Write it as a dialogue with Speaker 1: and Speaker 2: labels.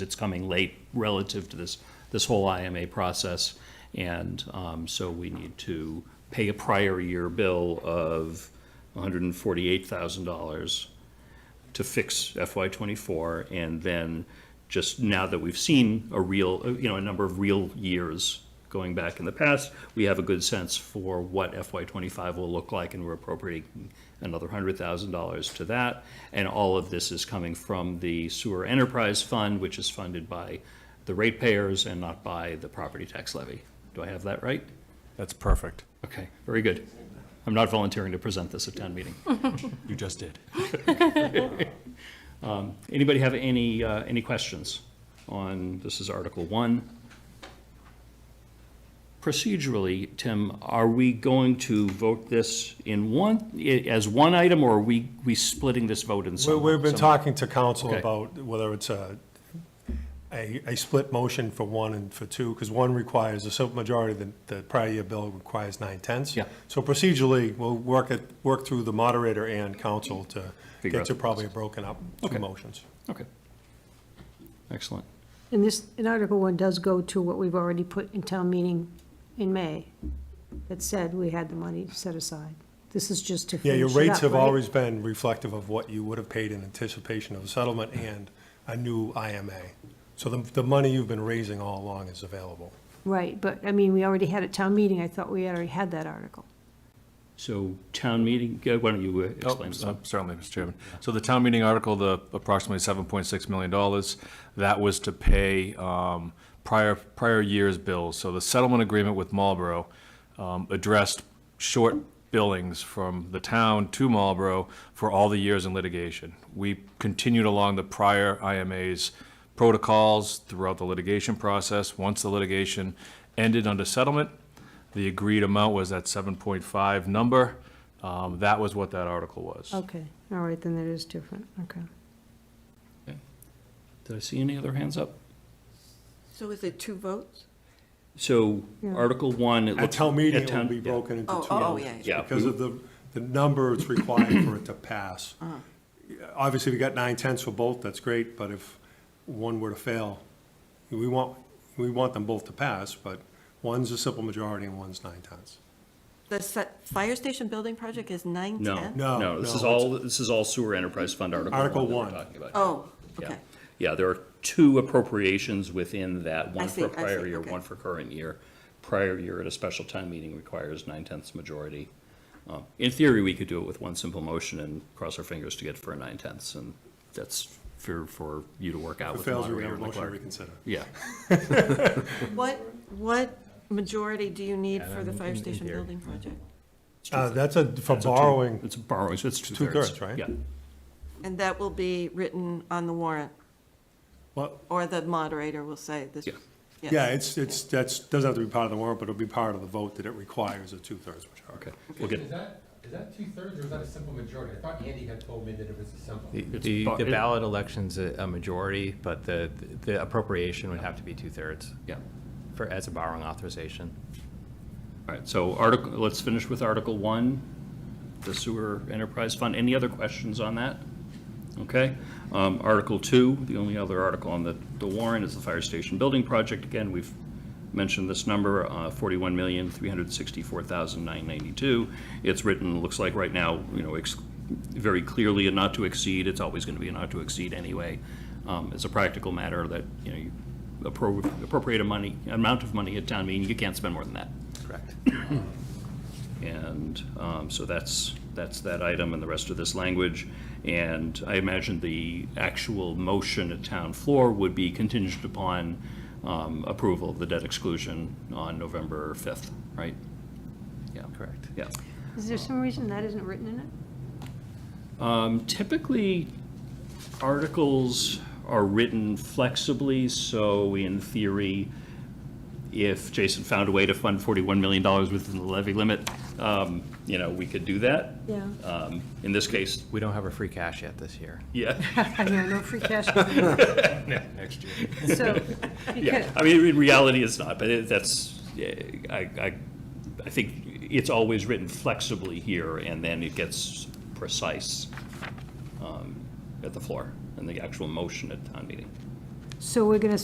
Speaker 1: it's coming late relative to this, this whole IMA process. And um, so we need to pay a prior year bill of $148,000 to fix FY '24, and then just now that we've seen a real, you know, a number of real years going back in the past, we have a good sense for what FY '25 will look like, and we're appropriating another hundred thousand dollars to that. And all of this is coming from the Sewer Enterprise Fund, which is funded by the ratepayers and not by the property tax levy. Do I have that right?
Speaker 2: That's perfect.
Speaker 1: Okay, very good. I'm not volunteering to present this at town meeting.
Speaker 2: You just did.
Speaker 1: Anybody have any, uh, any questions on, this is Article 1? Procedurally, Tim, are we going to vote this in one, i- as one item, or are we, we splitting this vote in
Speaker 3: We-
Speaker 1: some?
Speaker 3: We've been
Speaker 1: some-
Speaker 3: talking to council
Speaker 1: Okay.
Speaker 3: about whether it's a, a, a split motion for one and for two, because one requires a simple majority, the, the prior year bill requires nine tenths.
Speaker 1: Yeah.
Speaker 3: So procedurally, we'll work it, work through the moderator and council to
Speaker 1: Figure out
Speaker 3: get to
Speaker 1: the
Speaker 3: probably a broken up
Speaker 1: Okay.
Speaker 3: two motions.
Speaker 1: Okay. Excellent.
Speaker 4: And this, in Article One does go to what we've already put in town meeting in May, that said we had the money set aside. This is just to
Speaker 3: Yeah,
Speaker 4: finish it
Speaker 3: your
Speaker 4: up,
Speaker 3: rates have
Speaker 4: right?
Speaker 3: always been reflective of what you would have paid in anticipation of a settlement and a new IMA. So the, the money you've been raising all along is available.
Speaker 4: Right, but, I mean, we already had a town meeting, I thought we already had that article.
Speaker 1: So town meeting, uh, why don't you uh,
Speaker 2: Oh,
Speaker 1: explain
Speaker 2: uh,
Speaker 1: some?
Speaker 2: Certainly, Mr. Chairman. So the town meeting article, the approximately $7.6 million, that was to pay um, prior, prior year's bills. So the settlement agreement with Marlboro um, addressed short billings from the town to Marlboro for all the years in litigation. We continued along the prior IMA's protocols throughout the litigation process. Once the litigation ended under settlement, the agreed amount was that 7.5 number. Um, That was what that article was.
Speaker 4: Okay, all right, then that is different, okay.
Speaker 1: Did I see any other hands up?
Speaker 5: So is it two votes?
Speaker 1: So
Speaker 4: Yeah.
Speaker 1: Article 1, it looks.
Speaker 3: At town meeting, it will
Speaker 1: town-
Speaker 3: be
Speaker 1: yeah.
Speaker 3: broken into two
Speaker 5: Oh,
Speaker 3: motions.
Speaker 5: oh, yeah, yeah.
Speaker 1: Yeah.
Speaker 3: Because of the, the number it's required for it to pass.
Speaker 5: Uh-huh.
Speaker 3: Obviously, we got nine tenths for both, that's great, but if one were to fail, we want, we want them both to pass, but one's a simple majority and one's nine tenths.
Speaker 5: The se- fire station building project is nine
Speaker 1: No,
Speaker 5: ten?
Speaker 3: No,
Speaker 1: no, this
Speaker 3: no,
Speaker 1: is all, this is all sewer enterprise fund Article 1
Speaker 3: Article
Speaker 1: that we're
Speaker 3: one.
Speaker 1: talking about.
Speaker 5: Oh,
Speaker 1: Yeah.
Speaker 5: okay.
Speaker 1: Yeah, there are two appropriations within that, one
Speaker 5: I
Speaker 1: for
Speaker 5: see, I
Speaker 1: prior
Speaker 5: see,
Speaker 1: year,
Speaker 5: okay.
Speaker 1: one for current year. Prior year at a special town meeting requires nine-tenths majority. Uh, In theory, we could do it with one simple motion and cross our fingers to get for a nine-tenths, and that's for, for you to work out
Speaker 3: If it
Speaker 1: with the
Speaker 3: fails, we have
Speaker 1: moderator and
Speaker 3: a
Speaker 1: the
Speaker 3: motion to
Speaker 1: clerk.
Speaker 3: reconsider.
Speaker 1: Yeah,
Speaker 5: What, what majority do you need for the
Speaker 2: Um,
Speaker 5: fire
Speaker 2: in- in
Speaker 5: station
Speaker 2: theory.
Speaker 5: building project?
Speaker 3: Uh, that's a, for
Speaker 1: It's a two-
Speaker 3: borrowing,
Speaker 1: it's borrowing, so it's two-thirds.
Speaker 3: two-thirds, right?
Speaker 1: Yeah,
Speaker 5: And that will be written on the warrant,
Speaker 3: well,
Speaker 5: or the moderator will say this.
Speaker 1: Yeah.
Speaker 5: yes.
Speaker 3: yeah, it's, it's, that's, doesn't have to be part of the warrant, but it'll be part of the vote that it requires a two-thirds majority.
Speaker 1: okay, we'll get.
Speaker 6: Is that, is that two-thirds or is that a simple majority? I thought Andy had told me that it was a simple.
Speaker 7: The-
Speaker 1: It's
Speaker 7: The
Speaker 1: bu-
Speaker 7: the
Speaker 1: it-
Speaker 7: ballot election's a a majority, but the, the appropriation would have to be two-thirds
Speaker 1: Yeah,
Speaker 7: for, as a borrowing authorization.
Speaker 1: all right, so article, let's finish with Article 1, the sewer enterprise fund. Any other questions on that? Okay. Um, Article 2, the only other article on the the warrant is the fire station building project. Again, we've mentioned this number, uh, 41364992 It's written, looks like right now, you know, ex- very clearly a not to exceed. It's always going to be a not to exceed anyway. Um, It's a practical matter that, you know, you appro- appropriate a money, amount of money at town meeting, you can't spend more than that.
Speaker 7: Correct.
Speaker 1: And um, so that's, that's that item and the rest of this language. And I imagine the actual motion at town floor would be contingent upon um, approval of the debt exclusion on November 5th, right? Yeah,
Speaker 7: Correct.
Speaker 1: yeah.
Speaker 4: Is there some reason that isn't written in it?
Speaker 1: Um, Typically, articles are written flexibly, so in theory, if Jason found a way to fund $41 million within the levy limit, um, you know, we could do that.
Speaker 4: Yeah,
Speaker 1: Um, In this case,
Speaker 7: We don't have a free cash yet this year.
Speaker 1: yeah,
Speaker 4: I know, no free cash,
Speaker 7: Next year.
Speaker 4: so, because,
Speaker 1: yeah. I mean, in reality, it's not, but it- that's, yeah, I, I, I think it's always written flexibly here, and then it gets precise um, at the floor, and the actual motion at town meeting.
Speaker 4: So we're going to